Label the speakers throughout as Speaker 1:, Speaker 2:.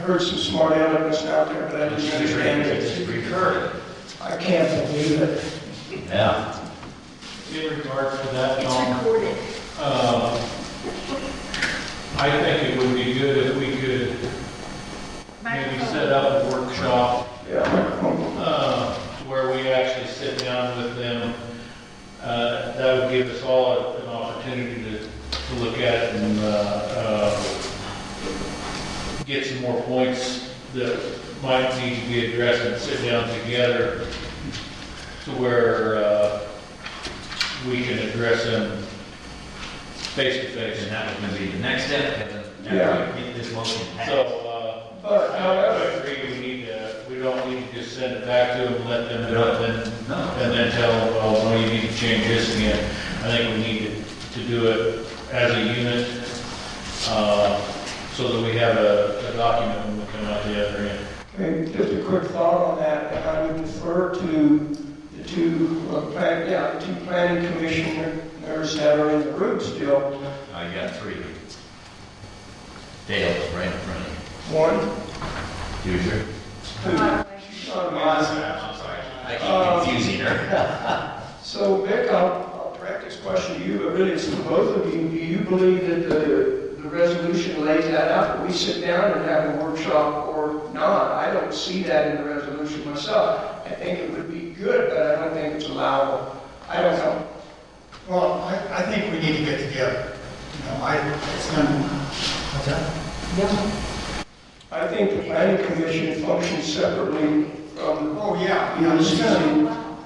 Speaker 1: heard some smart elements out there, but I didn't understand
Speaker 2: It's
Speaker 1: it.
Speaker 2: recurring.
Speaker 1: I can't believe it.
Speaker 2: Yeah. In regard to that,
Speaker 3: It's
Speaker 2: Tom,
Speaker 3: recorded.
Speaker 2: um, I think it would be good if we could maybe set up a workshop
Speaker 1: Yeah, microphone.
Speaker 2: uh, where we actually sit down with them. Uh, That would give us all an opportunity to, to look at it and uh, uh, get some more points that might need to be addressed and sit down together to where uh, we can address them face to face.
Speaker 4: And that was gonna be the next step, Kevin.
Speaker 1: Yeah.
Speaker 4: Get this motion
Speaker 2: So,
Speaker 4: passed.
Speaker 2: uh,
Speaker 1: But,
Speaker 2: I
Speaker 1: however,
Speaker 2: agree, we need to, we don't need to just send it back to them, let them do it, then
Speaker 4: No,
Speaker 2: uh, and then tell, them, well, no, you need to change this again. I think we need to- to do it as a unit, uh, so that we have a a document when we come out the other end.
Speaker 1: okay, just a quick thought on that, and I would defer to the two, uh, plan- yeah, the two planning commissioners that are in the room still.
Speaker 4: I got three. Dale's right in front of
Speaker 1: One,
Speaker 4: you. Huger.
Speaker 1: who, uh, mine.
Speaker 4: I'm sorry. I keep confusing her.
Speaker 1: So, Vic, I'll, I'll practice question you, but really it's to both of you. Do you believe that the, the resolution lays that out, that we sit down and have a workshop or not? I don't see that in the resolution myself. I think it would be good, but I don't think it's allowable. I don't know.
Speaker 5: Well, I, I think we need to get together. You know, I, it's gonna, what's that?
Speaker 1: I think the planning commission functions separately from
Speaker 5: Oh, yeah,
Speaker 1: the
Speaker 5: you know,
Speaker 1: UCC.
Speaker 5: it's gonna,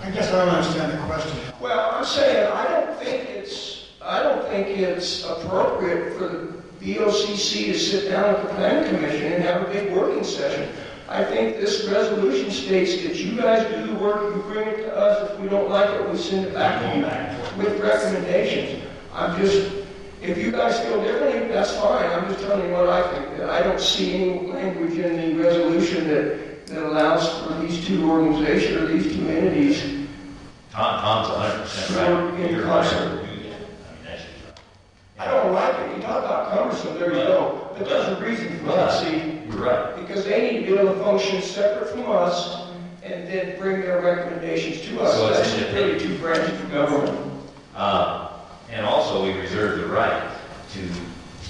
Speaker 5: I guess I don't understand the question.
Speaker 1: Well, I'm saying, I don't think it's, I don't think it's appropriate for the BOCC to sit down with the planning commission and have a big working session. I think this resolution states that you guys do the work, you bring it to us, if we don't like it, we send it back to you with recommendations. I'm just, if you guys feel differently, that's fine, I'm just telling you what I think. That I don't see any language in the resolution that, that allows for these two organizations, or these two entities
Speaker 4: Tom, Tom's hundred percent
Speaker 1: Sure,
Speaker 4: right.
Speaker 1: in
Speaker 4: You're right.
Speaker 1: concert.
Speaker 4: I mean, that's just-
Speaker 1: I don't like it, you talk about cumbersome, there you go, but there's a reason for that, see?
Speaker 4: You're right.
Speaker 1: Because they need to be able to function separate from us, and then bring their recommendations to us.
Speaker 4: So it's
Speaker 1: That's really two branches of government.
Speaker 4: Uh, and also, we reserve the right to,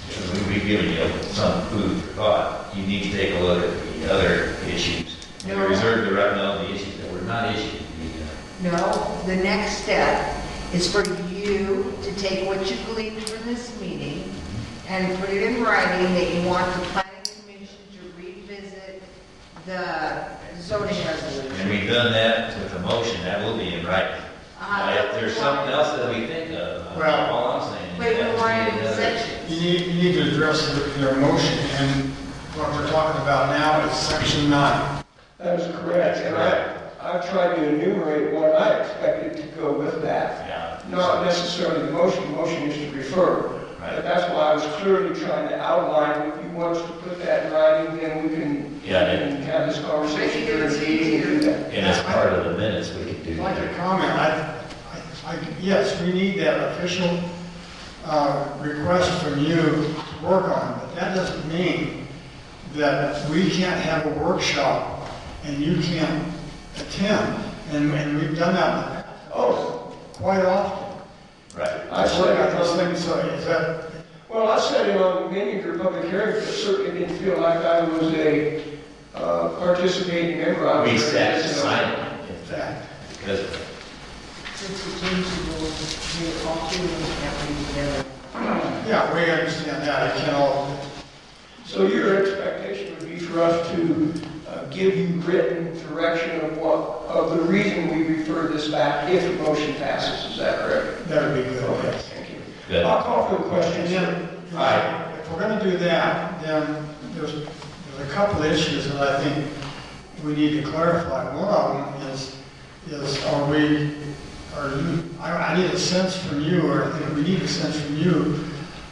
Speaker 4: because we've given you some food for thought, you need to take a look at the other issues. And we
Speaker 3: No.
Speaker 4: reserve the right, no, the issues that were not issued.
Speaker 3: No, the next step is for you to take what you gleaned from this meeting and put it in writing that you want the planning commission to revisit the zoning
Speaker 4: And
Speaker 3: resolution.
Speaker 4: we've done that with a motion, that will be in writing.
Speaker 3: Uh-huh.
Speaker 4: Now, if there's something else that we think of, uh,
Speaker 5: Well-
Speaker 4: all I'm saying. is
Speaker 3: Wait,
Speaker 4: that
Speaker 3: we're
Speaker 4: we
Speaker 3: running
Speaker 4: need
Speaker 3: the
Speaker 4: another-
Speaker 3: sections.
Speaker 5: You need, you need to address their, their motion, and what we're talking about now is section nine.
Speaker 1: That is correct, and I, I've tried to enumerate what I expected to go with that.
Speaker 4: Yeah.
Speaker 1: Not necessarily the motion, the motion is to refer. But
Speaker 4: Right.
Speaker 1: that's why I was clearly trying to outline, if you want us to put that in writing, then we can,
Speaker 4: Yeah, and-
Speaker 1: can have this conversation
Speaker 3: Make it
Speaker 1: during the meeting and do that.
Speaker 4: And as part of the minutes, we could do
Speaker 5: I'd like to
Speaker 4: that.
Speaker 5: comment, I, I, I- yes, we need that official, uh, request from you to work on, but that doesn't mean that we can't have a workshop and you can't attend, and, and we've done that in the past.
Speaker 1: Oh.
Speaker 5: Quite often.
Speaker 4: Right.
Speaker 1: I said, I
Speaker 5: those
Speaker 1: just think
Speaker 5: things, so is that,
Speaker 1: Well, I sat in on many of your public hearings, but certainly didn't feel like I was a uh, participating member. I was
Speaker 4: We sat
Speaker 1: just, you know,
Speaker 4: silent, in fact, because
Speaker 3: Since you changed the rules, you all two of you have to be together.
Speaker 5: yeah, we understand that, I can all,
Speaker 1: So your expectation would be for us to uh, give you written direction of what, of the reason we refer this back if the motion passes, is that correct?
Speaker 5: that would be good,
Speaker 1: Okay,
Speaker 5: yes.
Speaker 1: thank you.
Speaker 4: Good.
Speaker 1: I'll call for the
Speaker 5: And
Speaker 1: question.
Speaker 5: then,
Speaker 4: Aye.
Speaker 5: if we're gonna do that, then there's, there's a couple issues that I think we need to clarify. One of them is, is are we, are you, I, I need a sense from you, or I think we need a sense from you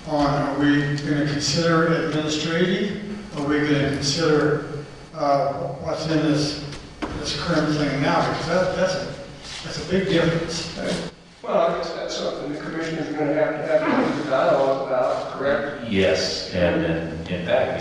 Speaker 5: on, are we gonna consider it administrative? Are we gonna consider, uh, what's in this, this current thing now? Because that, that's, a that's a big difference.
Speaker 1: Well, I guess that's something the commissioners are going to have to have a dialogue about, correct?
Speaker 4: Yes, and, and in fact,